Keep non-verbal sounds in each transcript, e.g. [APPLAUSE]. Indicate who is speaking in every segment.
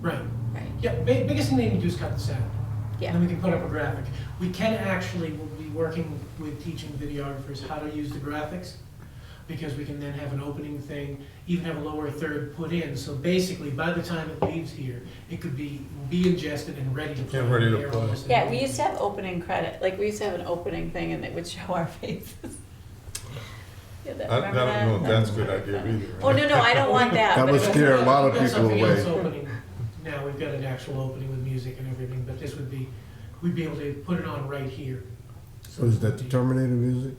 Speaker 1: Right.
Speaker 2: right?
Speaker 1: Yeah, ba- biggest thing they need to do is cut this out. And
Speaker 3: Um,
Speaker 1: then
Speaker 2: Yeah,
Speaker 1: we can put up a graphic. We can actually, we'll be working with teaching videographers how to use the graphics, because we can then have an opening thing, even have a lower third put in. So basically, by the time it leaves here, it could be, be ingested and ready to play.
Speaker 4: Yeah, ready to
Speaker 1: They're
Speaker 4: play.
Speaker 1: almost there.
Speaker 2: yeah, we used to have opening credit, like, we used to have an opening thing and it would show our [LAUGHS] faces. Yeah, that-
Speaker 4: I I don't
Speaker 2: remember that?
Speaker 4: know if
Speaker 2: That
Speaker 4: that's a
Speaker 2: was
Speaker 4: good
Speaker 2: really
Speaker 4: idea
Speaker 2: fun.
Speaker 4: either.
Speaker 2: Oh, no, no, I don't want
Speaker 4: [LAUGHS]
Speaker 2: that.
Speaker 5: That
Speaker 2: but
Speaker 5: would
Speaker 2: it
Speaker 5: scare a lot of
Speaker 1: We've got
Speaker 5: people
Speaker 1: something else
Speaker 5: away.
Speaker 1: opening Now, we've got an actual opening with music and everything, but this would be, we'd be able to put it on right here. So
Speaker 5: Was that the Terminator music?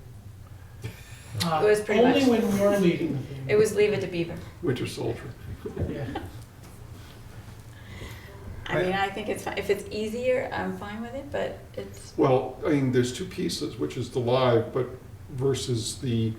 Speaker 1: Uh,
Speaker 2: It was pretty much-
Speaker 1: Only when we're
Speaker 2: [LAUGHS]
Speaker 1: leading. the thing.
Speaker 2: It was Leave It to Beaver.
Speaker 6: Winter Soldier.
Speaker 1: Yeah.
Speaker 2: I mean, I think it's fine, if it's easier, I'm fine with it, but it's,
Speaker 6: Well, I mean, there's two pieces, which is the live, but versus the,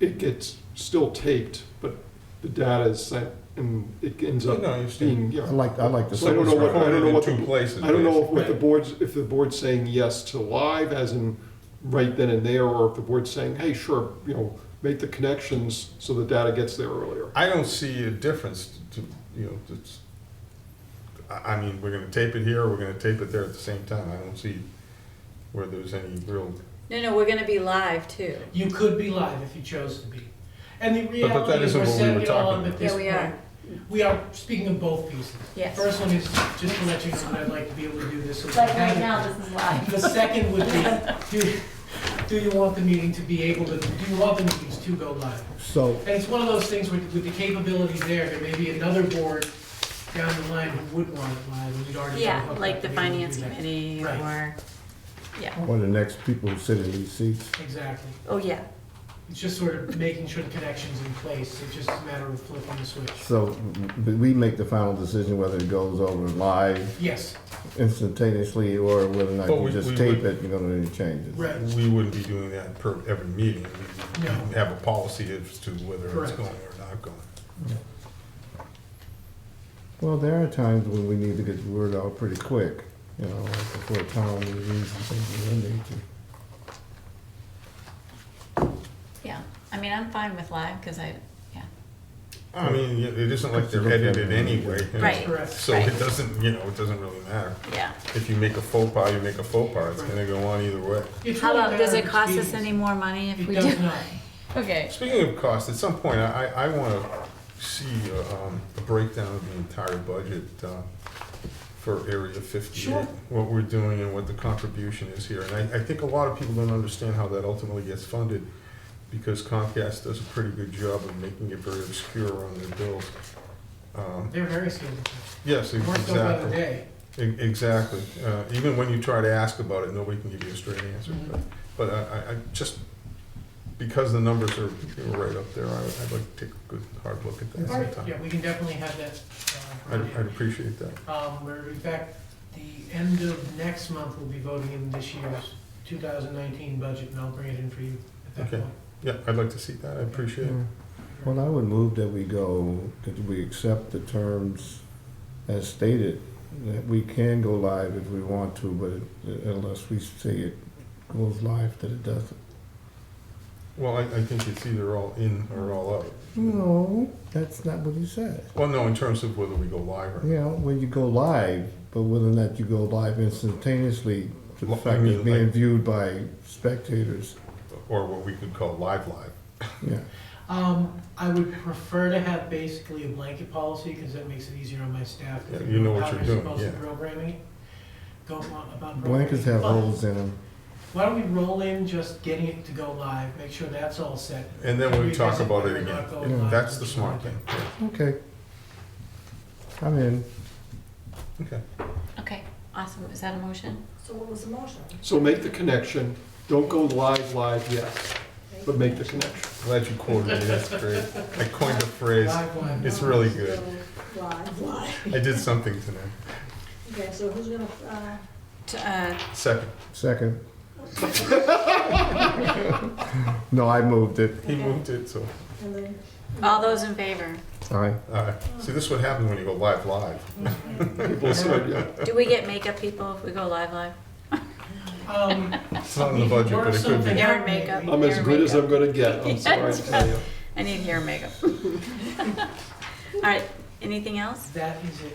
Speaker 6: it gets still taped, but the data is sent and it ends
Speaker 4: You
Speaker 6: up
Speaker 4: know, you've seen,
Speaker 6: being,
Speaker 5: I
Speaker 6: yeah.
Speaker 5: like, I like the.
Speaker 6: So I don't know what- I don't know what
Speaker 4: in
Speaker 6: the-
Speaker 4: two places.
Speaker 6: I don't know if
Speaker 4: basically.
Speaker 6: what the board's, if the board's saying yes to live, as in right then and there, or if the board's saying, hey, sure, you know, make the connections so the data gets there earlier.
Speaker 4: I don't see a difference to, you know, it's, I, I mean, we're gonna tape it here, we're gonna tape it there at the same time. I don't see where there's any real,
Speaker 2: no, no, we're gonna be live too.
Speaker 1: You could be live if you chose to be. And the
Speaker 4: but that
Speaker 1: reality is
Speaker 4: isn't
Speaker 1: we're
Speaker 4: what we
Speaker 1: setting
Speaker 4: were
Speaker 1: it all
Speaker 4: talking
Speaker 1: up
Speaker 4: about.
Speaker 1: at this
Speaker 2: Yeah,
Speaker 1: point.
Speaker 2: we are.
Speaker 1: We are speaking of both pieces.
Speaker 2: Yes.
Speaker 1: First one is just to let you know that I'd like to be able to do this. so we
Speaker 3: Like
Speaker 1: have
Speaker 3: right
Speaker 1: it.
Speaker 3: now, this is live.
Speaker 1: The second would be,
Speaker 2: [LAUGHS]
Speaker 1: do, do you want the meeting to be able to, do you want the meetings to go live?
Speaker 5: So,
Speaker 1: And it's one of those things with, with the capability there, there may be another board down the line who would want it live, and we'd already.
Speaker 2: Yeah,
Speaker 1: sort of hooked
Speaker 2: like
Speaker 1: up
Speaker 2: the
Speaker 1: to be able to do
Speaker 2: finance
Speaker 1: that.
Speaker 2: committee
Speaker 1: Right.
Speaker 2: or, yeah,
Speaker 5: or the next people who sit in these seats,
Speaker 1: Exactly.
Speaker 2: oh, yeah.
Speaker 1: It's just sort of making sure the connection's in place, it's just a matter of flipping the switch.
Speaker 5: so w- we make the final decision whether it goes over live
Speaker 1: Yes,
Speaker 5: instantaneously or whether or not
Speaker 4: But
Speaker 5: you
Speaker 4: we-
Speaker 5: just
Speaker 4: we
Speaker 5: tape
Speaker 4: would-
Speaker 5: it, you know, any changes.
Speaker 1: right,
Speaker 4: we wouldn't be doing that per every meeting. We
Speaker 1: No.
Speaker 4: have a policy as to whether it's
Speaker 1: Correct.
Speaker 4: going or not going.
Speaker 5: Well, there are times when we need to get the word out pretty quick, you know, like before town meetings and things of that nature.
Speaker 2: Yeah, I mean, I'm fine with live, because I, yeah,
Speaker 4: I mean, it it isn't like they're edited anyway. you know,
Speaker 2: Right.
Speaker 1: correct.
Speaker 4: So it
Speaker 2: Right.
Speaker 4: doesn't, you know, it doesn't really matter.
Speaker 2: yeah.
Speaker 4: If you make a faux pas, you make a faux pas. It's gonna go on either way.
Speaker 1: It's
Speaker 2: How
Speaker 1: really a
Speaker 2: about, does
Speaker 1: matter
Speaker 2: it
Speaker 1: of
Speaker 2: cost us
Speaker 1: expedience.
Speaker 2: any more money if we
Speaker 1: It does
Speaker 2: do?
Speaker 1: not.
Speaker 2: [LAUGHS] Okay.
Speaker 4: Speaking of cost, at some point, I, I want to see uh, um, a breakdown of the entire budget uh, for Area 58,
Speaker 1: Sure.
Speaker 4: what we're doing and what the contribution is here. And I, I think a lot of people don't understand how that ultimately gets funded, because Comcast does a pretty good job of making it very obscure on their bills. Um,
Speaker 1: They're very skilled.
Speaker 4: Yes,
Speaker 1: More so by the
Speaker 4: exactly,
Speaker 1: day.
Speaker 4: E- exactly. Uh, Even when you try to ask about it, nobody can give you a straight answer.
Speaker 1: Mhm.
Speaker 4: But- But I, I- I just, because the numbers are you know, right up there, I would, I'd like to take a good hard look at that
Speaker 1: All right,
Speaker 4: sometime.
Speaker 1: yeah, we can definitely have that. uh, for
Speaker 4: I'd,
Speaker 1: you.
Speaker 4: I'd appreciate that.
Speaker 1: Um, we're, in fact, the end of next month, we'll be voting in this year's two thousand nineteen budget, and I'll bring it in for you at that
Speaker 4: Okay.
Speaker 1: point.
Speaker 4: Yeah, I'd like to see that. I appreciate
Speaker 1: Mm.
Speaker 4: it.
Speaker 5: Well, I would move that we go, that we accept the terms as stated, that we can go live if we want to, but unless we say it goes live, that it doesn't.
Speaker 4: Well, I, I think it's either all in or all out.
Speaker 1: Mm.
Speaker 5: No, that's not what he said.
Speaker 4: Well, no, in terms of whether we go live or.
Speaker 5: You know, when you go live, but whether or not you go live instantaneously, to the
Speaker 4: Well, I
Speaker 5: fact it's
Speaker 4: mean,
Speaker 5: being
Speaker 4: like-
Speaker 5: viewed by spectators,
Speaker 4: Or what we could call live live.
Speaker 5: yeah.
Speaker 1: Um, I would prefer to have basically a blanket policy, because that makes it easier on my staff. to
Speaker 4: Yeah, you
Speaker 1: figure out
Speaker 4: know what
Speaker 1: how
Speaker 4: you're
Speaker 1: they're
Speaker 4: doing,
Speaker 1: supposed to
Speaker 4: yeah.
Speaker 1: Programming, it. go on about.
Speaker 5: Blankets have
Speaker 1: programming.
Speaker 5: holes in them.
Speaker 1: But Why don't we roll in just getting it to go live, make sure that's all set.
Speaker 4: And then we talk
Speaker 1: Revisit
Speaker 4: about
Speaker 1: whether
Speaker 4: it
Speaker 1: or
Speaker 4: again.
Speaker 1: not go
Speaker 5: Yeah,
Speaker 1: live.
Speaker 4: That's the smart thing.
Speaker 5: Okay. I'm in.
Speaker 4: Okay.
Speaker 2: Okay, awesome, is that a motion?
Speaker 3: So what was the motion?
Speaker 6: So make the connection, don't go live, live yet, but make the connection.
Speaker 4: Glad you quoted me. That's great. I coined a phrase.
Speaker 1: Live one.
Speaker 4: It's really
Speaker 1: [LAUGHS]
Speaker 4: good.
Speaker 3: Live, live.
Speaker 4: I did something tonight.
Speaker 3: Okay, so who's gonna, uh,
Speaker 2: To, uh,
Speaker 4: Second,
Speaker 5: Second. [LAUGHS] No, I moved it.
Speaker 4: he moved it, so.
Speaker 3: and then?
Speaker 2: all those in favor?
Speaker 5: Aye.
Speaker 4: Uh, see, this is what happens when you go live live.
Speaker 6: People said, yeah.
Speaker 2: Do we get makeup people if we go live live?
Speaker 1: Um,
Speaker 4: It's not in the budget, but it could be.
Speaker 2: Hair and makeup.
Speaker 6: I'm as good as I'm gonna get, I'm sorry to tell you.
Speaker 2: [LAUGHS] I need hair and makeup. All right, anything else?
Speaker 1: That is it.